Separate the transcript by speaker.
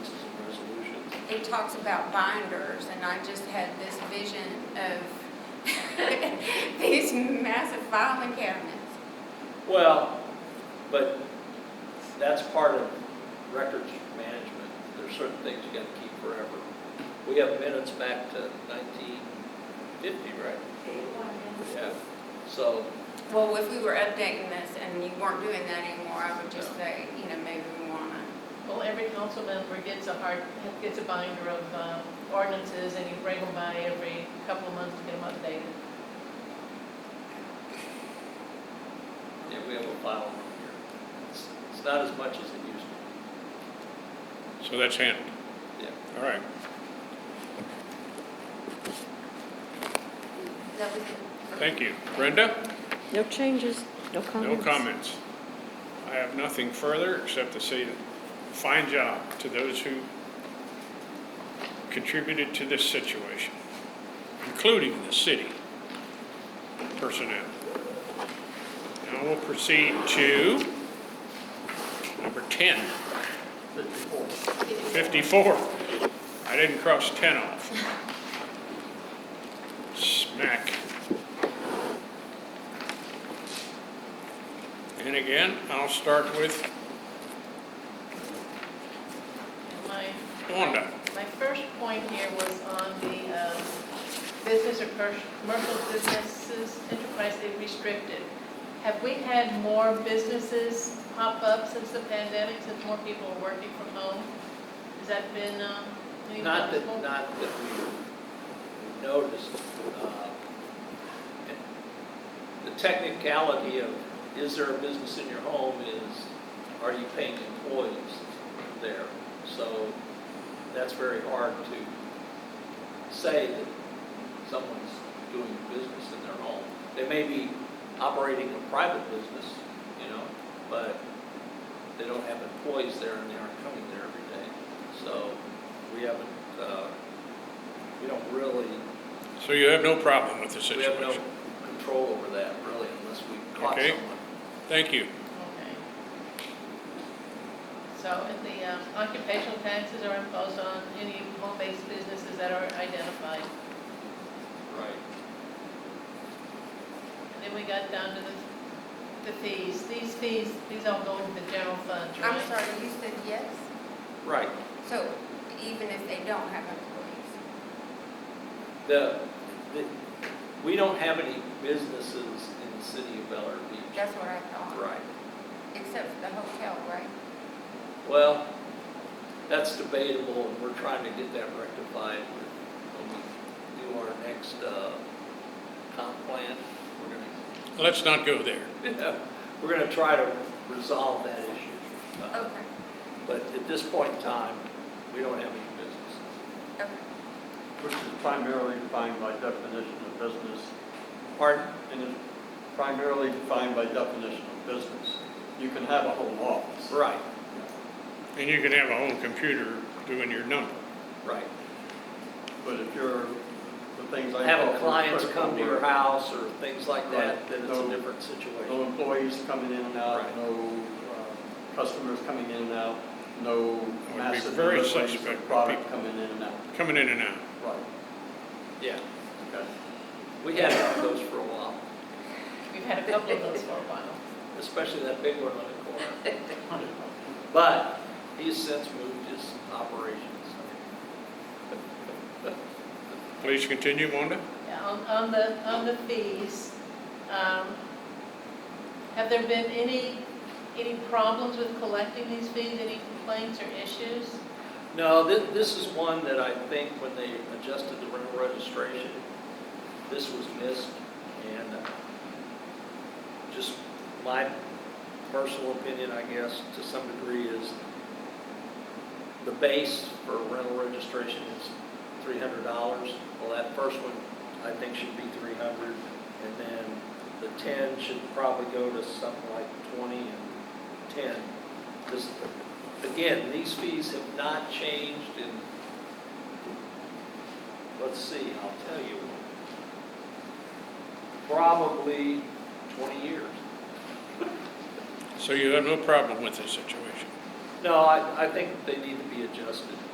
Speaker 1: it talks about binders, and I just had this vision of these massive filing cabinets.
Speaker 2: Well, but that's part of records management. There's certain things you gotta keep forever. We have minutes back to nineteen fifty, right? Yeah, so,
Speaker 1: Well, if we were updating this and you weren't doing that anymore, I would just say, you know, maybe we wanna,
Speaker 3: Well, every council member gets a hard, gets a binder of uh, ordinances, and you bring them by every couple of months to get them updated.
Speaker 2: yeah, we have a file room here. It's, it's not as much as it used to
Speaker 4: So that's handled,
Speaker 2: be, yeah.
Speaker 4: all right.
Speaker 1: that was it.
Speaker 4: Thank you. Brenda?
Speaker 5: No changes, no
Speaker 4: No
Speaker 5: comments.
Speaker 4: comments. I have nothing further except to say, fine job to those who contributed to this situation, including the city personnel. Now we'll proceed to number 10,
Speaker 2: Fifty-four.
Speaker 4: 54. I didn't cross 10 off. Smack. And again, I'll start with
Speaker 3: And my
Speaker 4: Wanda.
Speaker 3: My first point here was on the um, business or per- commercial businesses enterprise they restricted. Have we had more businesses pop up since the pandemic, since more people are working from home? Has that been, um, any
Speaker 2: Not that,
Speaker 3: noticeable?
Speaker 2: not that we noticed. uh, and The technicality of, is there a business in your home is, are you paying employees there? So that's very hard to say that someone's doing business in their home. They may be operating a private business, you know, but they don't have employees there and they aren't coming there every day. So we haven't, uh, we don't really,
Speaker 4: So you have no problem with the
Speaker 2: we have no
Speaker 4: situation?
Speaker 2: control over that really unless we caught
Speaker 4: Okay.
Speaker 2: someone.
Speaker 4: Thank you.
Speaker 3: Okay. So, and the um, occupational taxes are imposed on any home-based businesses that are identified.
Speaker 2: Right.
Speaker 3: And then we got down to the, the fees. These fees, these all go in the general fund, right?
Speaker 1: I'm sorry, you said yes?
Speaker 2: Right.
Speaker 1: So even if they don't have employees?
Speaker 2: The, the, we don't have any businesses in the city of Bel Air Beach.
Speaker 1: That's what I thought.
Speaker 2: Right.
Speaker 1: Except for the hotel, right?
Speaker 2: Well, that's debatable and we're trying to get that rectified with- when we do our next, uh, comp plan. We're gonna
Speaker 4: Let's not go there.
Speaker 2: Yeah, We're going to try to resolve that issue. Uh,
Speaker 1: Okay,
Speaker 2: But at this point in time, we don't have any businesses.
Speaker 1: okay.
Speaker 6: which is primarily defined by definition of business,
Speaker 2: Pardon?
Speaker 6: and is primarily defined by definition of business. You can have a home office.
Speaker 2: Right,
Speaker 4: And you can have a home computer doing your number.
Speaker 2: right.
Speaker 6: But if you're, the things I.
Speaker 2: Having
Speaker 6: call
Speaker 2: clients
Speaker 6: critical
Speaker 2: come to your
Speaker 6: work,
Speaker 2: house or things like that,
Speaker 6: Right.
Speaker 2: then it's a
Speaker 6: No-
Speaker 2: different
Speaker 6: No
Speaker 2: situation.
Speaker 6: employees coming in and
Speaker 2: Right.
Speaker 6: out, no uh, customers coming in and out, no
Speaker 4: be
Speaker 6: massive
Speaker 4: very
Speaker 6: deliveries
Speaker 4: suspect
Speaker 6: of
Speaker 4: when
Speaker 6: product
Speaker 4: people-
Speaker 6: coming in and out.
Speaker 4: Coming in and out.
Speaker 6: Right,
Speaker 2: Yeah,
Speaker 6: okay.
Speaker 2: we had those for a while,
Speaker 3: We've had a couple of those for a while. especially
Speaker 2: especially that big one on the corner. But he's since moved his operations.
Speaker 4: Please continue, Wanda.
Speaker 3: Yeah, On, on the, on the fees, um, have there been any, any problems with collecting these fees, any complaints or issues?
Speaker 2: No, this, this is one that I think when they adjusted the rental registration, this was missed, and uh, just my personal opinion, I guess, to some degree, is the base for rental registration is three hundred dollars. Well, that first one, I think, should be three hundred, and then the ten should probably go to something like twenty and ten. This, again, these fees have not changed in, let's see, I'll tell you, probably 20 years.
Speaker 4: So you have no problem with this situation?
Speaker 2: No, I, I think they need to be adjusted.